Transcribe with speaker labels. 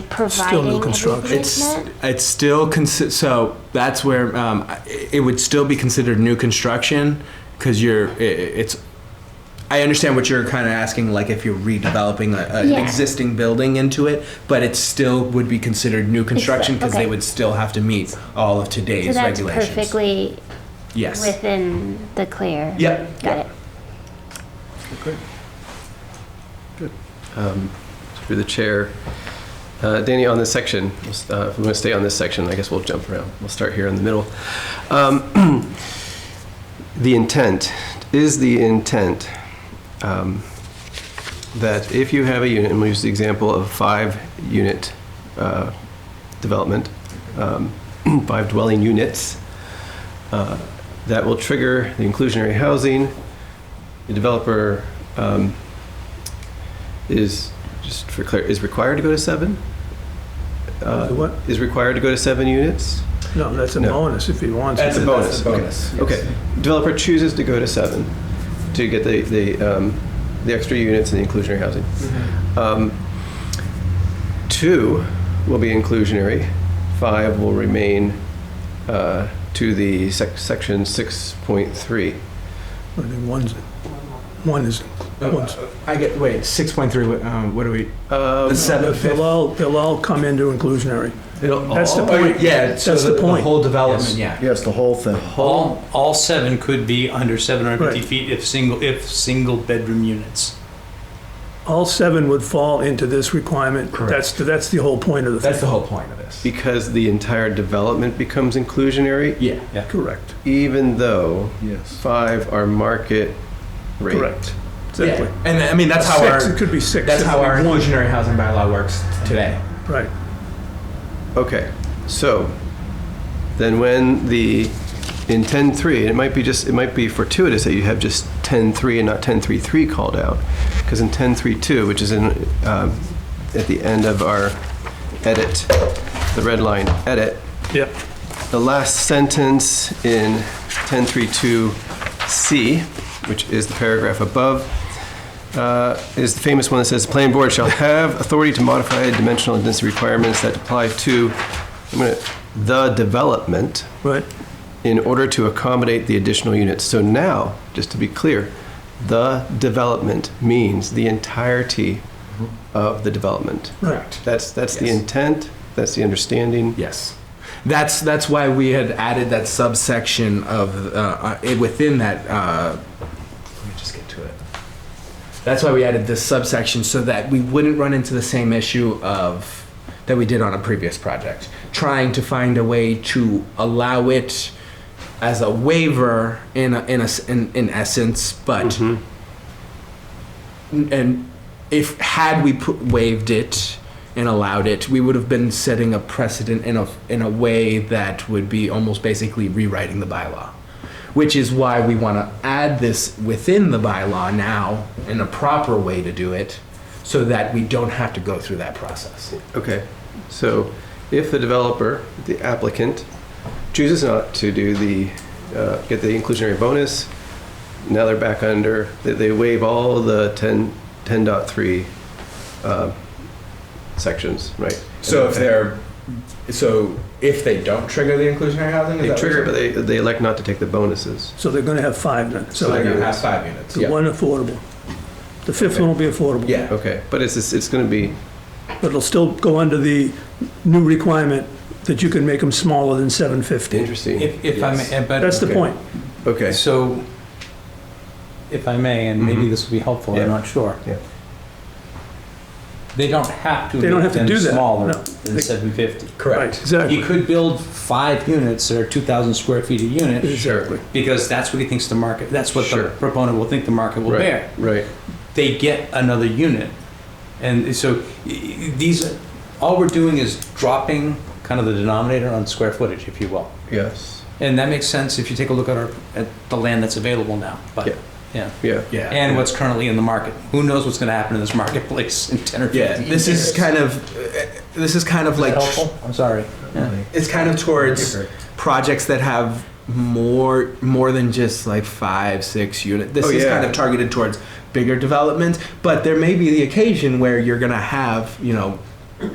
Speaker 1: providing
Speaker 2: Still new
Speaker 1: every
Speaker 2: construction.
Speaker 3: It's
Speaker 1: easement?
Speaker 3: it's still consi- so that's where um, it would still be considered new construction because you're i i- it's. I understand what you're kind of asking, like if you're redeveloping a, a- an
Speaker 1: Yeah.
Speaker 3: existing building into it, but it still would be considered new construction because
Speaker 1: okay.
Speaker 3: they would still have to meet all of today's
Speaker 1: So that's
Speaker 3: regulations.
Speaker 1: perfectly
Speaker 3: yes.
Speaker 1: within the clear.
Speaker 3: Yep.
Speaker 1: Got it.
Speaker 4: Great. Good. Um, Through the chair, uh, Danny, on this section, we'll s- uh, if we want to stay on this section, I guess we'll jump around. We'll start here in the middle. Um, The intent, is the intent um, that if you have a unit, and we'll use the example of five-unit uh, development, um, five dwelling units, uh, that will trigger the inclusionary housing, the developer um, is, just for clear, is required to go to seven? Uh,
Speaker 2: The what?
Speaker 4: Is required to go to seven units?
Speaker 2: No, that's a
Speaker 4: No.
Speaker 2: bonus if he wants.
Speaker 3: That's
Speaker 2: it.
Speaker 3: a bonus.
Speaker 4: okay.
Speaker 3: bonus, yes.
Speaker 4: Okay, developer chooses to go to seven to get the, the, um, the extra units and the inclusionary housing.
Speaker 3: Mm-hmm.
Speaker 4: Um, Two will be inclusionary, five will remain uh, to the sec- section 6.3.
Speaker 2: I think one's, one is, one's.
Speaker 3: I get wait six point three. Um, what do we?
Speaker 4: Um,
Speaker 3: The seven. fifth-
Speaker 2: They'll all, they'll all come into inclusionary.
Speaker 4: it'll
Speaker 2: That's the
Speaker 4: all-
Speaker 3: Oh,
Speaker 2: point.
Speaker 3: yeah, so
Speaker 2: That's
Speaker 3: the,
Speaker 2: the point.
Speaker 3: whole development. Yeah.
Speaker 5: Yes, the whole thing.
Speaker 6: All, all seven could be under 750
Speaker 2: Right.
Speaker 6: feet if single, if single bedroom units.
Speaker 2: All seven would fall into this requirement.
Speaker 3: Correct.
Speaker 2: That's, the- that's the whole point of the
Speaker 3: That's
Speaker 2: thing.
Speaker 3: the whole point of this.
Speaker 4: Because the entire development becomes inclusionary,
Speaker 3: Yeah.
Speaker 2: Correct,
Speaker 4: even though
Speaker 5: Yes.
Speaker 4: five are market rate.
Speaker 2: correct. Exactly.
Speaker 3: Yeah. And I mean that's how
Speaker 2: Six,
Speaker 3: our
Speaker 2: It could be six.
Speaker 3: That's
Speaker 2: if
Speaker 3: how
Speaker 2: we
Speaker 3: our
Speaker 2: want.
Speaker 3: inclusionary housing bylaw works today.
Speaker 2: Right.
Speaker 4: Okay, so then when the, in 10.3, and it might be just, it might be fortuitous that you have just 10.3 and not 10.3.3 called out, because in 10.3.2, which is in, um, at the end of our edit, the red line edit,
Speaker 2: Yep.
Speaker 4: the last sentence in 1032C, which is the paragraph above, uh, is the famous one that says, "The planning board shall have authority to modify dimensional and density requirements that apply to, I'm gonna- the development
Speaker 2: Right.
Speaker 4: in order to accommodate the additional units." So now, just to be clear, the development means the entirety of the development.
Speaker 2: Right.
Speaker 4: That's, that's the
Speaker 3: Yes.
Speaker 4: intent, that's the understanding.
Speaker 3: Yes. That's that's why we had added that subsection of uh, uh, it- within that. Uh, let me just get to it. That's why we added this subsection so that we wouldn't run into the same issue of that we did on a previous project, trying to find a way to allow it as a waiver in a, in, a, s- in in essence, but
Speaker 2: Mm-hmm.
Speaker 3: and if had we put, waived it and allowed it, we would have been setting a precedent in a in a way that would be almost basically rewriting the bylaw, which is why we want to add this within the bylaw now in a proper way to do it, so that we don't have to go through that process.
Speaker 4: Okay, so if the developer, the applicant, chooses not to do the, uh, get the inclusionary bonus, now they're back under, they- they waive all the 10, 10.3 uh, sections, right?
Speaker 3: they're so if they don't trigger the inclusionary housing,
Speaker 4: They trigger, but they, they elect not to take the bonuses.
Speaker 2: So they're gonna have five then. So
Speaker 4: they're gonna have
Speaker 3: five units.
Speaker 2: the one affordable. The fifth one will be affordable.
Speaker 4: Okay, but it's, it's- it's going to be,
Speaker 2: But it'll still go under the new requirement that you can make them smaller than 750.
Speaker 4: interesting.
Speaker 6: If, if I
Speaker 3: Yes.
Speaker 6: may, eh, but.
Speaker 2: That's the point.
Speaker 4: Okay,
Speaker 6: So, if I may, and maybe
Speaker 4: Mhm.
Speaker 6: this will be helpful,
Speaker 4: Yeah.
Speaker 6: I'm not sure.
Speaker 4: Yeah.
Speaker 6: They don't have to
Speaker 2: They don't
Speaker 6: make
Speaker 2: have to
Speaker 6: them
Speaker 2: do that.
Speaker 6: smaller
Speaker 2: No.
Speaker 6: than 750.
Speaker 2: Right,
Speaker 6: You
Speaker 2: exactly.
Speaker 6: could build five units that are 2,000 square feet a unit
Speaker 2: Exactly.
Speaker 6: because that's what he thinks the market, that's what
Speaker 4: Sure.
Speaker 6: the proponent will think the market will
Speaker 4: Right.
Speaker 6: bear.
Speaker 4: right.
Speaker 6: they get another unit. And so y- y- these, all we're doing is dropping kind of the denominator on square footage, if you will.
Speaker 4: Yes,
Speaker 6: And that makes sense if you take a look at our, at the land that's available now,
Speaker 4: Yeah.
Speaker 6: but, yeah.
Speaker 4: yeah.
Speaker 3: Yeah.
Speaker 6: And what's currently in the market. Who knows what's gonna happen in this marketplace in ten or
Speaker 3: yeah.
Speaker 6: fifteen
Speaker 3: This is
Speaker 6: years?
Speaker 3: kind of uh, this is kind of like
Speaker 6: Helpful? I'm sorry.
Speaker 3: it's kind of towards projects that have more more than just like five six unit this
Speaker 4: Oh,
Speaker 3: is
Speaker 4: yeah.
Speaker 3: kind of targeted towards bigger developments but there may be the occasion where you're gonna have you know